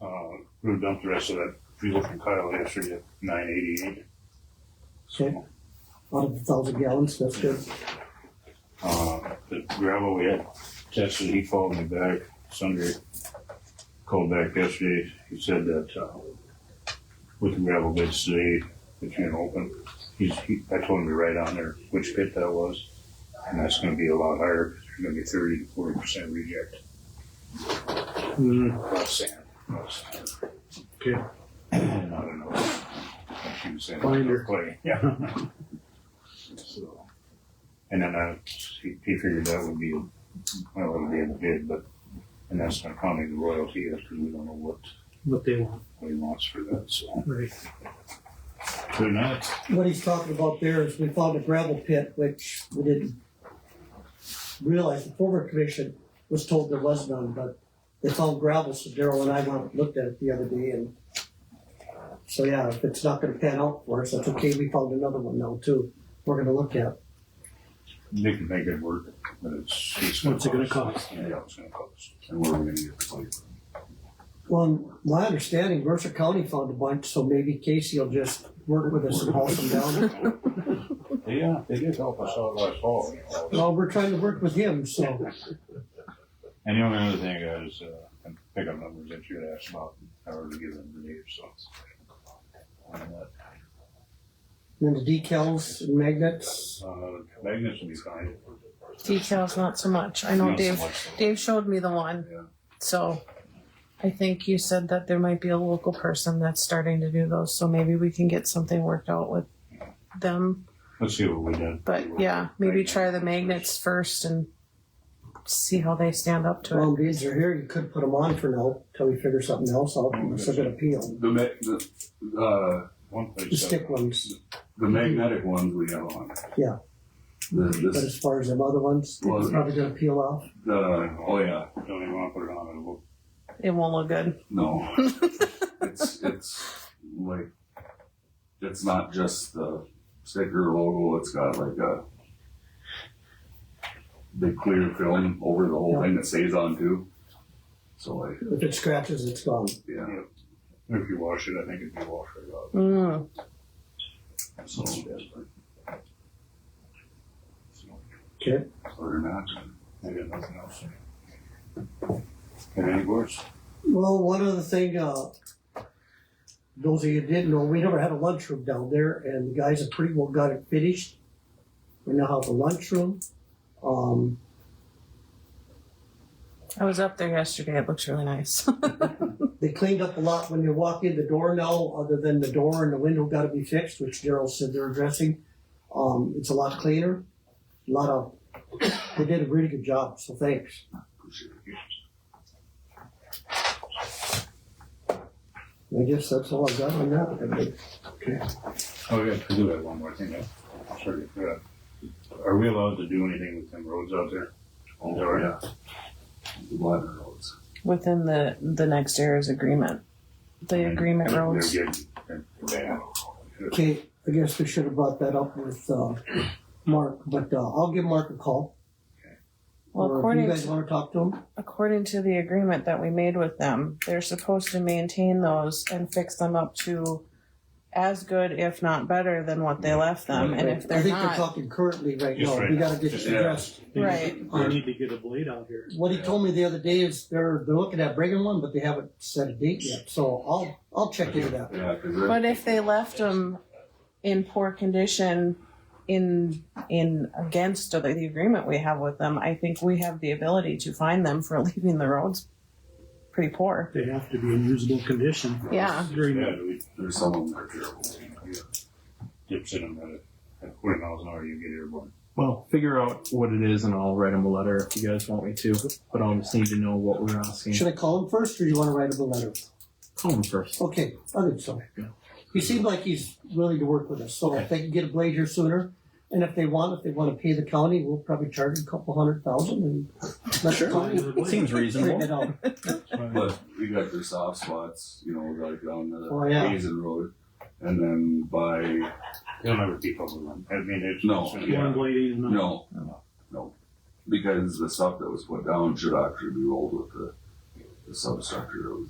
We're gonna dump Um, the rest of that, if you look at Kyle yesterday, at nine eighty-eight. Okay. Out of the thousand gallons, that's good. Uh, the gravel we had tested, he called me back Sunday, called back yesterday, he said that, uh, with the gravel bits today, that can't open, he's, he, I told him to write on there which pit that was, and that's gonna be a lot higher, because there's gonna be thirty to forty percent reject, Mm, not sand, not sand. Okay. And I don't know, I shouldn't say that, Binder. clay, yeah. So, And then I, he he figured that would be, well, it would be a bid, but, and that's not counting the royalty, that's because we don't know what, what they want, what he wants for that, so. right. Good night. What he's talking about there is we found a gravel pit, which we didn't realize the former commission was told there was none, but they found gravel, so Daryl and I went and looked at it the other day and so yeah, if it's not gonna pan out for us, that's okay, we found another one now too, we're gonna look at. They can make it work, but it's, it's. What's it gonna cost? Yeah, it's gonna cost. And where are we gonna get the money from? Well, my understanding, Mercer County found a bunch, so maybe Casey will just work with us and haul some down. Yeah, they did help us out last fall. you know. Well, we're trying to work with him, so. And the only other thing is, uh, and pickup numbers that you had asked about, I already given them to you, so. And, uh, And then the decals and magnets, Uh, magnets will be fine. Details, not so much. I know Not so Dave, much, though. Dave showed me the one. Yeah. So I think you said that there might be a local person that's starting to do those. So maybe we can get something worked out with them. Let's see what we did. But yeah, maybe try the magnets first and see how they stand up to it. well, these are here, you could put them on for now, till we figure something else out, Oh, unless they're gonna peel. The ma- the, uh, One place. The stick ones, the magnetic ones we have on. Yeah. The, but this, as far as them other ones, Well, it's probably gonna peel off. the, oh yeah, Don't even wanna put it on, it'll look It won't look good. no. It's, it's like, it's not just the sticker logo, it's got like a big clear film over the whole thing that stays on too. So like, If it scratches, it's gone. yeah, If you wash it, I think it'd be washed right off. Mm. so, Okay. Or not, I got nothing else. Got any words? Well, one other thing, uh, those of you who didn't know, we never had a lunchroom down there, and the guys have pretty well got it finished. We now have a lunchroom. Um, I was up there yesterday. It looks really nice. They cleaned up a lot when you walk in the door now, other than the door and the window gotta be fixed, which Daryl said they're addressing. Um, it's a lot cleaner, a lot of, they did a really good job, so thanks. I guess that's all I got on that. Oh, yeah, I do have one more thing, I'm sorry, yeah. Are we allowed to do anything with them roads out there? oh yeah. The Blatter roads. Within the, the next era's agreement, the agreement They're- roads. They're getting, they're bad. Okay, I guess we should have brought that up with, uh, Mark, but, uh, I'll give Mark a call. Well, Or if according you to guys wanna talk to him, according to the agreement that we made with them, they're supposed to maintain those and fix them up to as good, if not better, than what they left them. Um, And if I they're think they're not, talking currently right Just now, right we now. gotta get Just- it yeah. addressed. They need- Right. They need to get a blade out here. What he told me the other day is they're they're looking at bringing one, but they haven't set a date yet. So I'll I'll check into that. Yeah, cause they're- but if they left them in poor condition, in in against the, the agreement we have with them, I think we have the ability to find them for leaving the roads pretty poor. They have to be in usable condition. Yeah. During Yeah, that. we there's some of them that are terrible. dips in them at, a- at forty miles an hour, you get airborne. Well, figure out what it is and I'll write him a letter if you guys want me to. But I'll just need to know what we're asking. Should I call him first, or you want to write him a letter? Call him first. Okay, I think so. He seemed like he's willing to work with us, so if they can get a blade here sooner, and if they want, if they want to pay the county, we'll probably charge them a couple hundred thousand and let the county Seems figure it reasonable. out. But we got their soft spots, you know, like on the Oh, yeah. Hazen Road. And then by, They'll never keep up with them, I mean, it's. No. it's gonna be- One blade is enough. no, no. Because the stuff that was put down should actually be rolled with the, the substructure that was